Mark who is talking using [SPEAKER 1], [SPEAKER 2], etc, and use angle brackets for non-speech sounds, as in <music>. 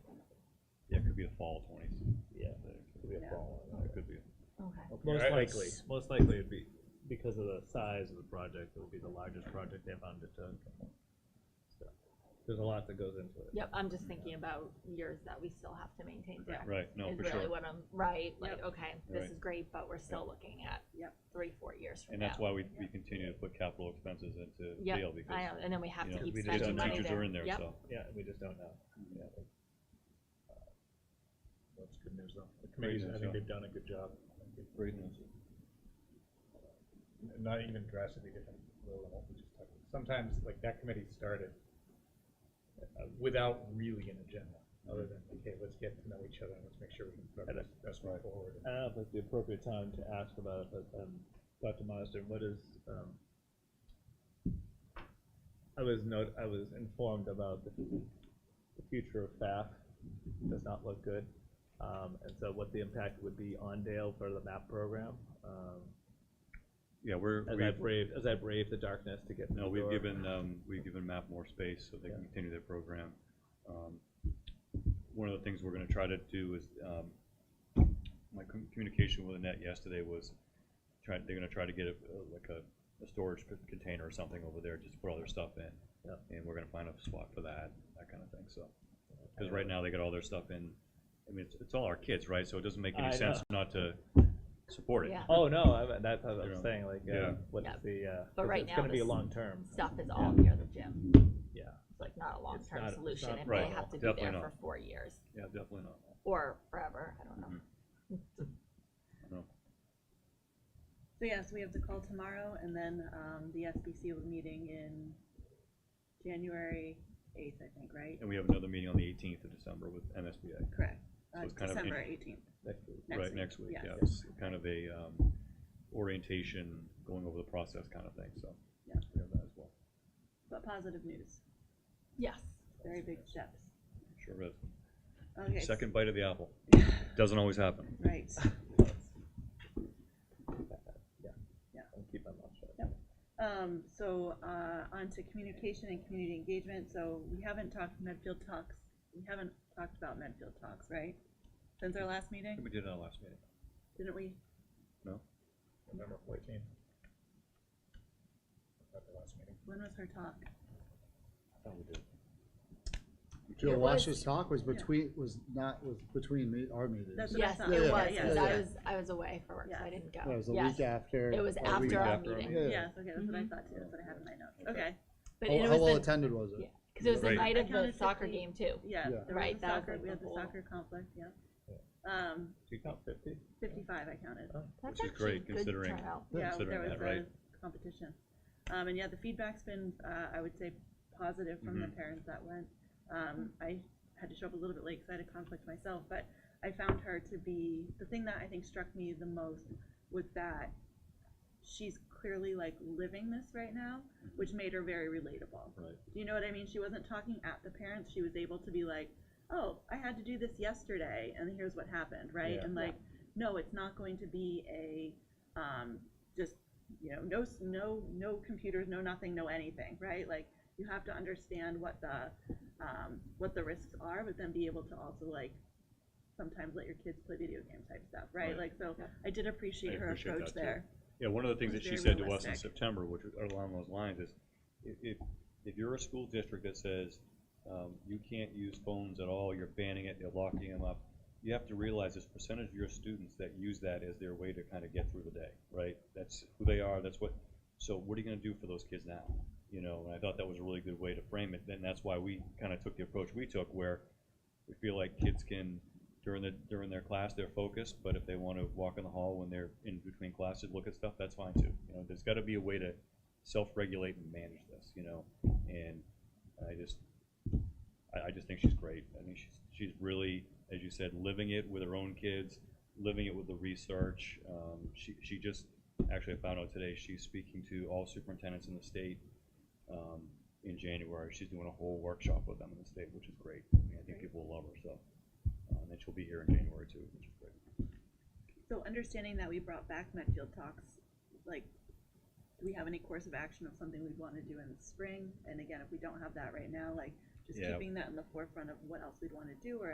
[SPEAKER 1] all twenties.
[SPEAKER 2] Yeah,
[SPEAKER 1] There
[SPEAKER 2] could be a
[SPEAKER 3] Yeah.
[SPEAKER 2] fall on
[SPEAKER 1] could be.
[SPEAKER 3] Okay.
[SPEAKER 2] that.
[SPEAKER 4] Yeah,
[SPEAKER 2] Most
[SPEAKER 4] it's-
[SPEAKER 2] likely,
[SPEAKER 4] Most likely it'd be, because of the size of the project, it would be the largest project they've undertook. So, There's a lot that goes into it.
[SPEAKER 3] Yep, I'm just thinking about years that we still have to maintain debt.
[SPEAKER 1] Right, no,
[SPEAKER 3] Is
[SPEAKER 1] for
[SPEAKER 3] really
[SPEAKER 1] sure.
[SPEAKER 3] what I'm, right, like, okay, this
[SPEAKER 1] Right.
[SPEAKER 3] is great, but we're still looking at
[SPEAKER 5] Yep.
[SPEAKER 3] three, four years from
[SPEAKER 1] And
[SPEAKER 3] now.
[SPEAKER 1] that's why we, we continue to put capital expenses into
[SPEAKER 3] Yep,
[SPEAKER 1] Vail
[SPEAKER 3] I
[SPEAKER 1] because
[SPEAKER 3] know, and then we have
[SPEAKER 1] you
[SPEAKER 3] to
[SPEAKER 1] know,
[SPEAKER 3] keep
[SPEAKER 2] we just
[SPEAKER 1] kids
[SPEAKER 3] spending
[SPEAKER 1] and
[SPEAKER 3] money
[SPEAKER 1] teachers are
[SPEAKER 3] there.
[SPEAKER 1] in there,
[SPEAKER 3] Yep.
[SPEAKER 1] so.
[SPEAKER 2] Yeah, we just don't know. Yeah. Uh, That's good news though. The committees, I
[SPEAKER 1] news,
[SPEAKER 4] think
[SPEAKER 1] yeah.
[SPEAKER 4] they've done a good job.
[SPEAKER 1] Great news.
[SPEAKER 4] Not even drastically different, little than what we just talked about. Sometimes like that committee started uh, without really an agenda, other than, okay, let's get to know each other and let's make sure we can progress this way forward.
[SPEAKER 6] I don't know if it's the appropriate time to ask about it, but, um, Dr. Marsden, what is, um, I was note, I was informed about the, the future of FAF does not look good. Um, and so what the impact would be on Dale for the MAP program, um,
[SPEAKER 1] Yeah, we're,
[SPEAKER 6] as I
[SPEAKER 1] we've,
[SPEAKER 6] brave, as I brave the darkness to get to the
[SPEAKER 1] no, we've
[SPEAKER 6] door.
[SPEAKER 1] given, um, we've given MAP more space so they can
[SPEAKER 6] Yeah.
[SPEAKER 1] continue their program. Um, One of the things we're gonna try to do is, um, my com- communication with Annette yesterday was try, they're gonna try to get a, like a, a storage c- container or something over there just to put all their stuff in.
[SPEAKER 6] Yeah.
[SPEAKER 1] And we're gonna find a spot for that, that kind of thing, so. Cause right now they got all their stuff in, I mean, it's, it's all our kids, right? So it doesn't make
[SPEAKER 6] I
[SPEAKER 1] any
[SPEAKER 6] know.
[SPEAKER 1] sense not to support it.
[SPEAKER 3] Yeah.
[SPEAKER 6] Oh, no, I, that's what I
[SPEAKER 1] Yeah.
[SPEAKER 6] was saying, like,
[SPEAKER 1] Yeah.
[SPEAKER 6] uh, what's
[SPEAKER 3] Yeah.
[SPEAKER 6] the, uh,
[SPEAKER 3] But
[SPEAKER 6] 'cause
[SPEAKER 3] right
[SPEAKER 6] it's
[SPEAKER 3] now
[SPEAKER 6] gonna be
[SPEAKER 3] this-
[SPEAKER 6] long term,
[SPEAKER 3] Stuff is all near the gym,
[SPEAKER 6] yeah.
[SPEAKER 3] it's like not a
[SPEAKER 6] not-
[SPEAKER 3] long-term
[SPEAKER 6] it's
[SPEAKER 3] solution,
[SPEAKER 6] not
[SPEAKER 3] if
[SPEAKER 1] right,
[SPEAKER 3] they have to be
[SPEAKER 1] definitely
[SPEAKER 3] there
[SPEAKER 1] not.
[SPEAKER 3] for four years,
[SPEAKER 1] Yeah, definitely not.
[SPEAKER 3] or forever, I don't know.
[SPEAKER 1] Mm-hmm. No.
[SPEAKER 5] So yes, we have the call tomorrow and then, um, the SBC will be meeting in January eighth, I think, right?
[SPEAKER 1] And we have another meeting on the eighteenth of December with MSBA,
[SPEAKER 5] Correct, uh,
[SPEAKER 1] it's kind of
[SPEAKER 5] December
[SPEAKER 1] in-
[SPEAKER 5] eighteenth,
[SPEAKER 6] next week.
[SPEAKER 5] next
[SPEAKER 1] right,
[SPEAKER 5] week.
[SPEAKER 1] next week,
[SPEAKER 5] Yes.
[SPEAKER 1] yeah, it's kind of a, um, orientation, going over the process kind of thing, so.
[SPEAKER 5] Yeah.
[SPEAKER 1] We have that as well,
[SPEAKER 5] But positive news,
[SPEAKER 3] Yes,
[SPEAKER 5] very big steps.
[SPEAKER 1] sure is,
[SPEAKER 5] Okay. s-
[SPEAKER 1] second bite of the
[SPEAKER 5] <laughs>
[SPEAKER 1] apple, doesn't always happen.
[SPEAKER 5] Right,
[SPEAKER 1] <laughs>
[SPEAKER 6] I'll keep my mouth shut.
[SPEAKER 5] um, so, uh, on to communication and community engagement, so we haven't talked Medfield Talks, we haven't talked about Medfield Talks, right? Since our last
[SPEAKER 1] I think
[SPEAKER 5] meeting,
[SPEAKER 1] we did it on last meeting,
[SPEAKER 5] didn't we?
[SPEAKER 4] November fourteenth. At the last meeting.
[SPEAKER 5] When was her talk?
[SPEAKER 3] It
[SPEAKER 7] Joe
[SPEAKER 3] was-
[SPEAKER 7] Wash's talk was between, was not, was between me, our meetings.
[SPEAKER 5] That's
[SPEAKER 7] That
[SPEAKER 5] what I
[SPEAKER 3] yes,
[SPEAKER 5] thought.
[SPEAKER 3] it
[SPEAKER 7] Yeah,
[SPEAKER 3] was,
[SPEAKER 5] yeah,
[SPEAKER 3] because
[SPEAKER 7] yeah,
[SPEAKER 3] I
[SPEAKER 7] yeah.
[SPEAKER 3] was, I was away for work, so I
[SPEAKER 5] Yeah.
[SPEAKER 3] didn't go.
[SPEAKER 7] was the
[SPEAKER 3] Yes.
[SPEAKER 7] week after.
[SPEAKER 3] It was
[SPEAKER 7] or week
[SPEAKER 3] after our
[SPEAKER 1] after our
[SPEAKER 3] meeting,
[SPEAKER 7] Yeah.
[SPEAKER 5] Yes, okay, that's what I thought too, that's what I had in my notes, okay,
[SPEAKER 3] but
[SPEAKER 7] How,
[SPEAKER 3] it
[SPEAKER 7] how
[SPEAKER 3] was
[SPEAKER 7] well
[SPEAKER 3] the,
[SPEAKER 7] attended was it?
[SPEAKER 3] yeah, because it was the
[SPEAKER 1] Right.
[SPEAKER 3] night
[SPEAKER 5] I
[SPEAKER 3] of the
[SPEAKER 5] counted
[SPEAKER 3] soccer
[SPEAKER 5] 50.
[SPEAKER 3] game too.
[SPEAKER 5] yeah,
[SPEAKER 7] Yeah.
[SPEAKER 5] there was
[SPEAKER 3] Right,
[SPEAKER 5] the
[SPEAKER 3] that was
[SPEAKER 5] soccer,
[SPEAKER 3] like
[SPEAKER 5] we
[SPEAKER 3] the
[SPEAKER 5] had the
[SPEAKER 3] whole-
[SPEAKER 5] soccer conflict, yeah. Um,
[SPEAKER 6] Do you count fifty?
[SPEAKER 5] fifty-five I counted,
[SPEAKER 3] That's
[SPEAKER 1] Which is
[SPEAKER 3] actually
[SPEAKER 1] great,
[SPEAKER 3] good
[SPEAKER 1] considering-
[SPEAKER 3] turnout.
[SPEAKER 5] yeah,
[SPEAKER 1] considering
[SPEAKER 5] there was
[SPEAKER 1] that, right?
[SPEAKER 5] a competition. Um, and yeah, the feedback's been, uh, I would say, positive from
[SPEAKER 1] Mm-hmm.
[SPEAKER 5] the parents that went. Um, I had to show up a little bit late, cause I had a conflict myself, but I found her to be, the thing that I think struck me the most was that she's clearly like living this right now, which made her very relatable.
[SPEAKER 1] Mm-hmm. Right.
[SPEAKER 5] Do you know what I mean? She wasn't talking at the parents. She was able to be like, "Oh, I had to do this yesterday, and here's what happened," right?
[SPEAKER 6] Yeah.
[SPEAKER 5] And like, no, it's not going to be a um, just you know, no, s- no, no computers, no nothing, no anything, right? Like, you have to understand what the um, what the risks are, but then be able to also like sometimes let your kids play video game type stuff, right?
[SPEAKER 1] Right.
[SPEAKER 5] Like, so
[SPEAKER 3] Yeah.
[SPEAKER 5] I did appreciate
[SPEAKER 1] I
[SPEAKER 5] her
[SPEAKER 1] appreciate
[SPEAKER 5] approach
[SPEAKER 1] that, too.
[SPEAKER 5] there.
[SPEAKER 1] Yeah, one of the things
[SPEAKER 5] It
[SPEAKER 1] that
[SPEAKER 5] was
[SPEAKER 1] she
[SPEAKER 5] very
[SPEAKER 1] said to us in
[SPEAKER 5] realistic.
[SPEAKER 1] September, which was along those lines, is i- if, if you're a school district that says, um, you can't use phones at all, you're banning it, you're locking them up, you have to realize this percentage of your students that use that as their way to kind of get through the day, right? That's who they are, that's what, so what are you gonna do for those kids now? You know, and I thought that was a really good way to frame it, and that's why we kind of took the approach we took, where we feel like kids can, during the, during their class, they're focused, but if they want to walk in the hall when they're in between classes, look at stuff, that's fine too. You know, there's got to be a way to self-regulate and manage this, you know, and I just, I, I just think she's great. I mean, she's, she's really, as you said, living it with her own kids, living it with the research. Um, she, she just, actually I found out today, she's speaking to all superintendents in the state, um, in January. She's doing a whole workshop with them in the state, which is great. I mean, I think people will love her, so. Uh, and then she'll be here in January too, which is great.
[SPEAKER 5] So understanding that we brought back Medfield Talks, like, do we have any course of action of something we'd wanna do in the spring? And again, if we don't have that right now, like, just
[SPEAKER 1] Yeah.
[SPEAKER 5] keeping that in the forefront of what else we'd wanna do or